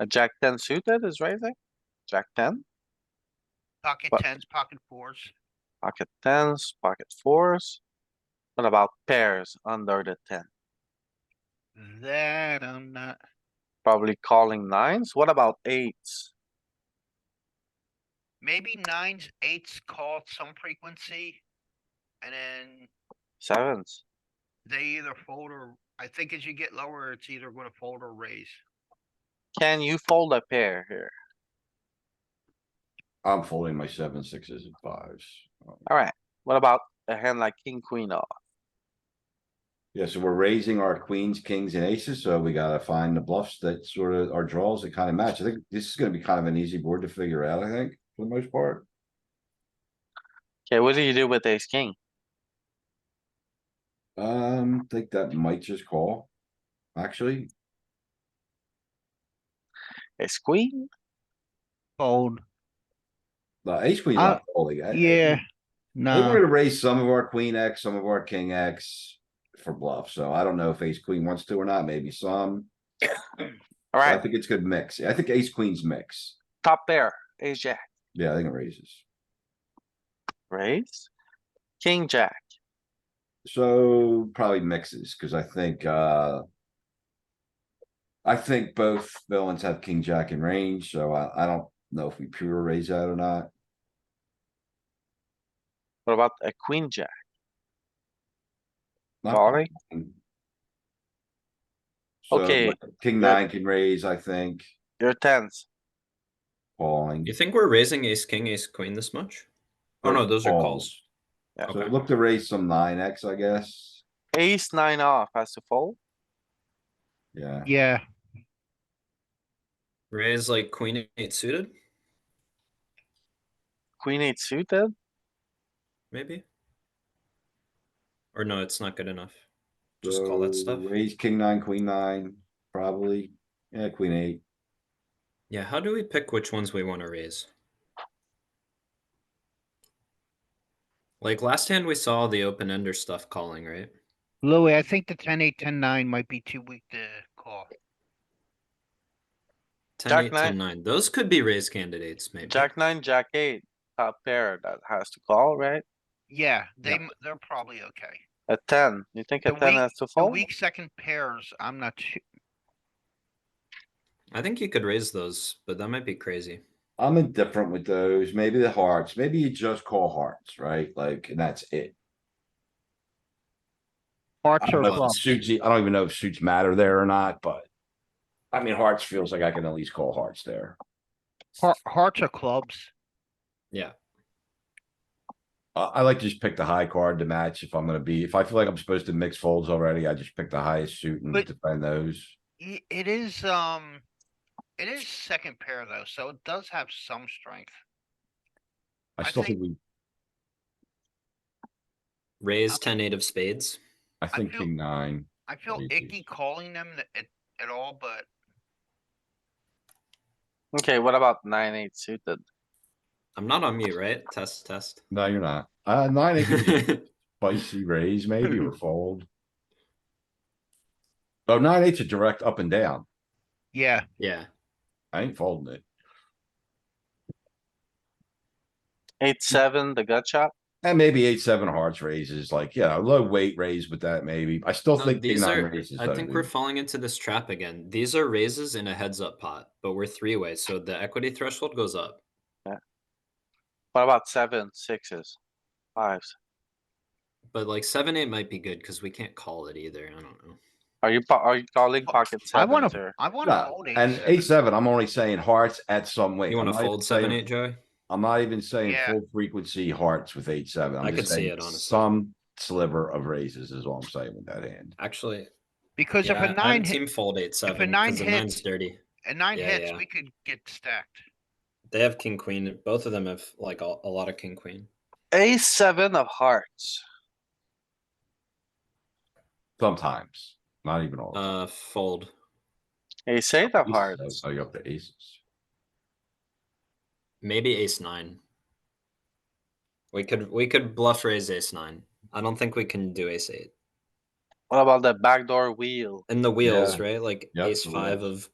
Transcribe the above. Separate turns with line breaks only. A jack ten suited is raising, jack ten,
Pocket
But-
tens, pocket fours.
pocket tens, pocket fours. What about pairs under the ten?
That I'm not.
Probably calling nines. What about eights?
Maybe nines, eights called some frequency. And then
Sevens,
they either fold or, I think as you get lower, it's either gonna fold or raise.
can you fold a pair here?
I'm folding my seven, sixes and fives. Um,
Alright, what about a hand like king, queen off?
Yeah, so we're raising our queens, kings and aces, so we gotta find the bluffs that sort of our draws that kind of match. I think this is gonna be kind of an easy board to figure out, I think, for the most part.
Okay, what do you do with ace, king?
Um, think that might just call. Actually,
Ace, queen?
Fold,
the ace queen
Uh,
not calling. I- I- They were
no.
gonna raise some of our queen X, some of our king X for bluff, so I don't know if ace queen wants to or not, maybe some. So I
Alright,
think it's good mix. I think ace queens mix.
top pair, ace, jack,
Yeah, I think it raises.
raise. King, jack,
So probably mixes, cuz I think, uh. I think both villains have king, jack in range, so I, I don't know if we pure raise that or not.
what about a queen, jack,
Not
calling?
queen. So,
Okay.
like, King
That-
nine can raise, I think,
Your tens,
calling.
You think we're raising ace king, ace queen this much? Oh no, those are calls.
Yeah.
So
Okay.
look to raise some nine X, I guess.
ace, nine off has to fold.
Yeah,
Yeah,
Raise like queen eight suited,
Queen eight suited,
maybe? Or no, it's not good enough. Just call that
So
stuff.
Raise king nine, queen nine, probably. Yeah, queen eight.
Yeah, how do we pick which ones we want to raise? Like last hand, we saw the open ender stuff calling, right?
Louis, I think the ten, eight, ten, nine might be too weak to call.
Ten,
Jack
eight,
nine.
ten, nine. Those could be raise candidates, maybe.
jack nine, jack eight, top pair that has to call, right?
Yeah, they,
Yeah.
m- they're probably okay.
A ten, you think a
The
ten
weak-
has to
The
fold?
weak second pairs, I'm not su-
I think you could raise those, but that might be crazy.
I'm indifferent with those. Maybe the hearts, maybe you just call hearts, right? Like, and that's it. I
Hearts
don't
or
know if it
clubs.
suits, you- I don't even know if suits matter there or not, but. I mean, hearts feels like I can at least call hearts there.
Heart, hearts or clubs.
Yeah,
I, I like to just pick the high card to match if I'm gonna be, if I feel like I'm supposed to mix folds already, I just pick the highest suit and
But-
defend those.
Y- It is, um, it is second pair though, so it does have some strength.
I
I
still
think-
think we,
raise ten, eight of spades.
I think
feel-
king nine.
I feel
Believe
icky
these.
calling them th- at, at all, but
Okay, what about nine, eight suited?
I'm not on mute, right? Test, test.
No, you're not. Uh, nine, it could be spicy raise maybe or fold. Oh, nine, eight's a direct up and down.
yeah,
yeah.
I ain't folding it.
Mm.
Eight, seven, the gut shot?
And maybe eight, seven of hearts raises, like, yeah, low weight raise with that maybe. I still
No,
think king
Um, these
nine
are-
raises.
I
though,
think we're
dude.
falling into this trap again. These are raises in a heads up pot, but we're three way, so the equity threshold goes up.
What about seven, sixes, fives?
But like seven eight might be good because we can't call it either. I don't know.
Are you, po- are you calling
Fo-
pocket
I wanna,
sevens or?
I wanna
No,
fold
And eight, seven, I'm only saying hearts at some weight.
You
I'm
want
not
to
even
fold seven
saying-
eight, Joey?
I'm not even saying
Yeah.
full frequency hearts with eight, seven.
I
I'm
could
just
see
saying
it, honestly.
some sliver of raises is all I'm saying with that hand.
Actually,
Because if
yeah,
a
I'm
nine, hit-
team fold eight seven. 'cause
nine
the nine's
hits-
dirty.
a nine
yeah,
hits,
yeah.
we could get stacked.
They have king queen. Both of them have like a, a lot of king queen.
Ace, seven of hearts.
Sometimes, not even all. the time.
Uh, fold.
Ace, eight of
Aces,
hearts.
though, so you're up to aces.
Maybe ace nine. We could we could bluff raise ace nine. I don't think we can do ace eight.
What about the backdoor wheel?
And the wheels, right? Like
Yep,
ace
the
five of